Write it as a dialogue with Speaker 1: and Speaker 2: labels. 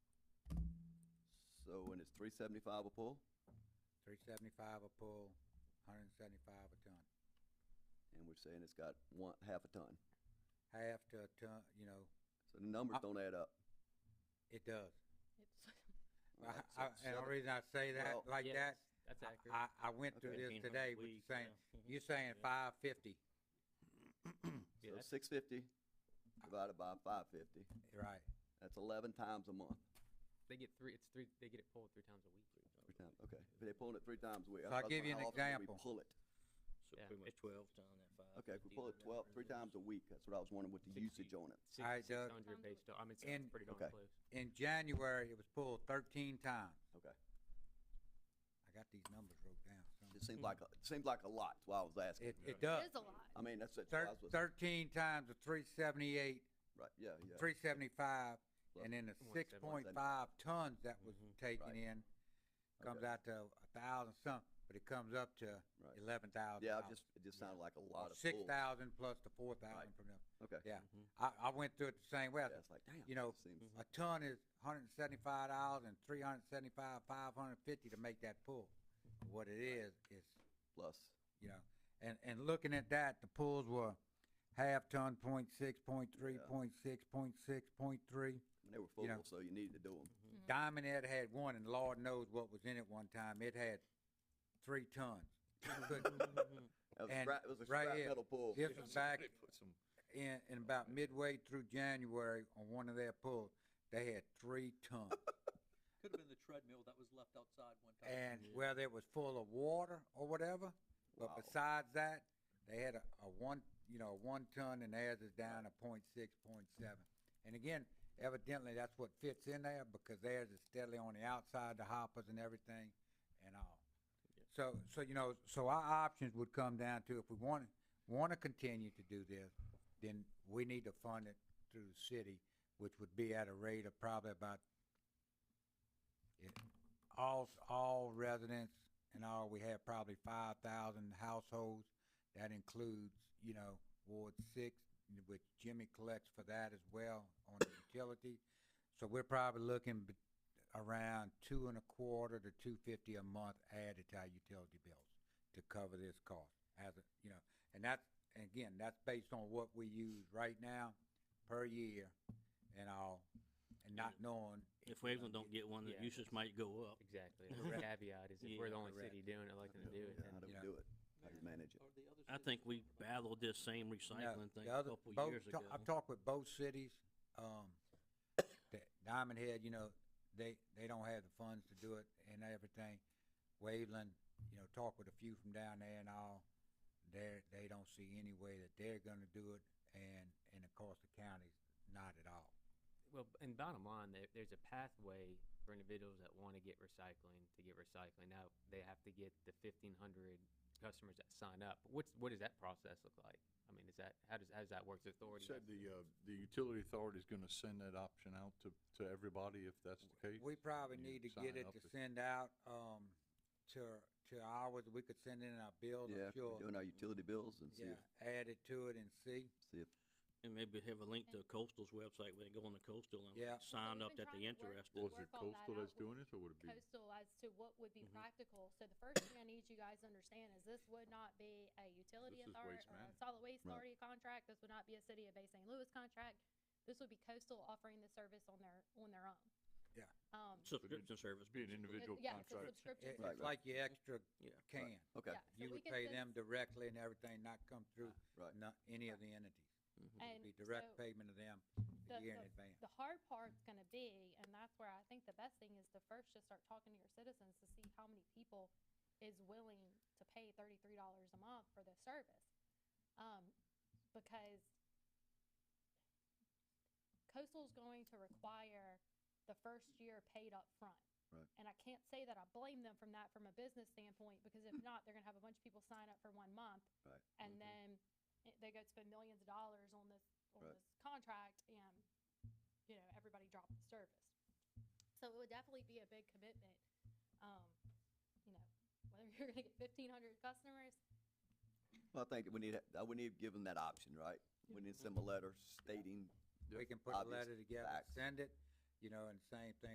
Speaker 1: So, and it's three seventy-five a pull,
Speaker 2: Three seventy-five a pull, hundred and seventy-five a ton.
Speaker 1: and we're saying it's got one, half a ton.
Speaker 2: Half to a ton, you know,
Speaker 1: So the numbers
Speaker 2: I-
Speaker 1: don't add up.
Speaker 2: it does.
Speaker 3: It's
Speaker 2: I-
Speaker 1: Alright, so
Speaker 2: I- And the
Speaker 1: seven-
Speaker 2: reason I say that
Speaker 1: Well-
Speaker 2: like
Speaker 4: Yes,
Speaker 2: that,
Speaker 4: That's
Speaker 2: I-
Speaker 4: accurate.
Speaker 2: I, I went through
Speaker 1: Okay.
Speaker 2: this
Speaker 4: 1,500
Speaker 2: today
Speaker 4: a
Speaker 2: with
Speaker 4: week,
Speaker 2: saying,
Speaker 4: yeah. Mhm.
Speaker 2: you're saying
Speaker 4: Yeah.
Speaker 2: five fifty,
Speaker 4: Yeah,
Speaker 1: So
Speaker 4: that's-
Speaker 1: six fifty divided by five fifty,
Speaker 2: right?
Speaker 1: that's eleven times a month.
Speaker 4: They get three, it's three, they get it pulled three times a week.
Speaker 1: Three times, okay. If they're pulling it three times a week. I
Speaker 2: So I'll
Speaker 1: was
Speaker 2: give you
Speaker 1: wondering
Speaker 2: an
Speaker 1: how often do
Speaker 2: example.
Speaker 1: We pull it.
Speaker 5: So
Speaker 4: Yeah,
Speaker 5: pretty much
Speaker 4: it-
Speaker 5: twelve ton at five.
Speaker 1: Okay, if we pull it twelve, three times a week, that's what I was wondering with the
Speaker 4: Sixty.
Speaker 1: usage on it.
Speaker 4: Six,
Speaker 2: Alright,
Speaker 4: six
Speaker 2: Doug.
Speaker 4: hundred based on, I mean, it's
Speaker 2: And-
Speaker 4: it's pretty darn
Speaker 1: Okay.
Speaker 4: close.
Speaker 2: In January, it was pulled thirteen times.
Speaker 1: Okay.
Speaker 2: I got these numbers wrote down. somewhere.
Speaker 1: It seems like, a- it seems like a lot, that's why I was asking.
Speaker 2: It, it does.
Speaker 3: a lot.
Speaker 1: I mean, that's, that's what I
Speaker 2: Thir-
Speaker 1: was,
Speaker 2: Thirteen times the three seventy-eight,
Speaker 1: right, yeah, yeah.
Speaker 2: three seventy-five,
Speaker 1: Plus
Speaker 2: and then the
Speaker 4: one
Speaker 2: six
Speaker 4: seven-
Speaker 2: point five tons that was taken
Speaker 1: Mm-hmm. Right.
Speaker 2: in comes
Speaker 1: Okay.
Speaker 2: out to a thousand some, but it comes up to
Speaker 1: Right.
Speaker 2: eleven thousand.
Speaker 1: Yeah, I just, it just sounded like a lot of
Speaker 2: Six
Speaker 1: pulls.
Speaker 2: thousand plus the four thousand from them.
Speaker 1: Okay.
Speaker 2: Yeah,
Speaker 4: Mm-hmm.
Speaker 2: I, I went through it the same way. I
Speaker 1: Yeah,
Speaker 2: said,
Speaker 1: it's like, damn.
Speaker 2: you know,
Speaker 1: it seems-
Speaker 2: A ton is hundred and seventy-five dollars and three hundred and seventy-five, five hundred and fifty to make that pull. What it is, is,
Speaker 1: Plus,
Speaker 2: you know, and, and looking at that, the pulls were half ton, point six, point three,
Speaker 1: Yeah.
Speaker 2: point six, point six, point three.
Speaker 1: and they were
Speaker 2: You know.
Speaker 1: full, so you needed to do them.
Speaker 5: Mm-hmm.
Speaker 2: Diamond Head had one, and Lord knows what was in it one time. It had three tons. Couldn't-
Speaker 4: Mm-hmm.
Speaker 1: It was
Speaker 2: And
Speaker 1: scrap, it was a
Speaker 2: right
Speaker 1: scrap
Speaker 2: here,
Speaker 1: metal pull.
Speaker 2: This was back
Speaker 5: Somebody put some-
Speaker 2: in, in about midway through January on one of their pulls, they had three tons.
Speaker 6: Could have been the treadmill that was left outside one time.
Speaker 2: and whether it was full of water or whatever. But
Speaker 1: Wow.
Speaker 2: besides that, they had a, a one, you know, a one ton, and theirs is down to point six, point seven. And again, evidently that's what fits in there because theirs is steadily on the outside, the hoppers and everything, and all. So, so you know, so our options would come down to if we want want to continue to do this, then we need to fund it through the city, which would be at a rate of probably about it, all, all residents and all, we have probably five thousand households. That includes, you know, Ward Six, which Jimmy collects for that as well on the utility. So we're probably looking bet- around two and a quarter to two fifty a month added to our utility bills to cover this cost as, a you know, and that's, and again, that's based on what we use right now per year and all, and not knowing.
Speaker 5: If Waveland don't get one, the
Speaker 4: Yeah.
Speaker 5: usage might go up.
Speaker 4: Exactly. That's the caveat is if we're the
Speaker 5: Yeah.
Speaker 4: only city doing it, like, to do it,
Speaker 1: Yeah, How
Speaker 4: then
Speaker 1: do we
Speaker 2: Yeah.
Speaker 1: do it? How do you manage it?
Speaker 6: Or the other
Speaker 5: I
Speaker 6: cities
Speaker 5: think
Speaker 6: that
Speaker 5: we
Speaker 6: provide-
Speaker 5: battled this same
Speaker 2: No,
Speaker 5: recycling thing
Speaker 2: the
Speaker 5: a
Speaker 2: other- um,
Speaker 5: couple
Speaker 2: both-
Speaker 5: years
Speaker 2: ta-
Speaker 5: ago.
Speaker 2: I've talked with both cities, um, that Diamond Head, you know, they, they don't have the funds to do it and everything. Waveland, you know, talked with a few from down there and all, they're, they don't see any way that they're gonna do it and, and of course the county's not at all.
Speaker 4: Well, b- and bottom line, there, there's a pathway for individuals that want to get recycling to get recycling. Now they have to get the fifteen hundred customers that sign up. What's what does that process look like? I mean, is that how does how does that work? The authority
Speaker 7: Said
Speaker 4: has to-
Speaker 7: the, uh, the utility authority's gonna send that option out to, to everybody if that's the case.
Speaker 2: We probably
Speaker 7: you
Speaker 2: need to
Speaker 7: sign
Speaker 2: get it
Speaker 7: up
Speaker 2: to
Speaker 7: if-
Speaker 2: send out, um, to, to ours, we could send in our bills,
Speaker 1: Yeah, if
Speaker 2: I'm
Speaker 1: we're
Speaker 2: sure.
Speaker 1: doing our utility bills and see
Speaker 2: Yeah,
Speaker 1: if,
Speaker 2: add it to it and see.
Speaker 1: see if,
Speaker 5: And maybe have a link to Coastal's website, where they go on the Coastal and
Speaker 2: Yeah.
Speaker 5: like, sign
Speaker 3: We've
Speaker 5: up
Speaker 3: been
Speaker 5: that
Speaker 3: trying to
Speaker 5: they
Speaker 3: work-
Speaker 5: interested.
Speaker 7: Well, is
Speaker 3: work all
Speaker 7: it
Speaker 3: that out
Speaker 7: coastal that's
Speaker 3: with
Speaker 7: doing it, or would it be?
Speaker 3: Coastal as to what would be
Speaker 5: Mhm.
Speaker 3: practical. So the first thing I need you guys to understand is this would not be a utility
Speaker 7: This is
Speaker 3: authority or
Speaker 7: waste
Speaker 3: a
Speaker 7: management.
Speaker 3: solid waste
Speaker 1: Right.
Speaker 3: authority contract. This would not be a city of Bay St. Louis contract. This would be coastal offering the service on their, on their own.
Speaker 2: Yeah.
Speaker 3: Um, it-
Speaker 5: Subscription service.
Speaker 7: Be an
Speaker 5: basically.
Speaker 7: individual
Speaker 3: yeah, it's a
Speaker 7: contract.
Speaker 3: subscription.
Speaker 2: It-
Speaker 1: Right,
Speaker 2: It's
Speaker 3: service.
Speaker 2: like your extra
Speaker 5: Yeah.
Speaker 2: can.
Speaker 1: okay,
Speaker 3: Yeah, so
Speaker 2: You
Speaker 3: we
Speaker 2: would
Speaker 3: can
Speaker 2: pay
Speaker 3: send- Uh,
Speaker 2: them directly and everything, not come through
Speaker 1: right.
Speaker 2: not any of the entities.
Speaker 5: Mm-hmm.
Speaker 2: It would
Speaker 3: And
Speaker 2: be
Speaker 3: so
Speaker 2: direct payment of them
Speaker 3: the-
Speaker 2: a year in
Speaker 3: the-
Speaker 2: advance.
Speaker 3: the hard part's gonna be, and that's where I think the best thing is to first just start talking to your citizens to see how many people is willing to pay thirty-three dollars a month for this service. Um, because coastal's going to require the first year paid up front.
Speaker 1: Right.
Speaker 3: And I can't say that I blame them from that from a business standpoint, because if not, they're gonna have a bunch of people sign up for one month.
Speaker 1: Right. Mm-hmm.
Speaker 3: And
Speaker 5: Mhm.
Speaker 3: then it- they go spend millions of dollars on this, on
Speaker 1: Right.
Speaker 3: this contract and, you know, everybody dropped the service. So it would definitely be a big commitment, um, you know, whether you're gonna get fifteen hundred customers,
Speaker 1: Well, I think we need, to- uh, we need to give them that option, right? We need to send them a letter stating
Speaker 2: We can put a
Speaker 1: obvious
Speaker 2: letter together,
Speaker 1: facts.
Speaker 2: send it, you know, and same thing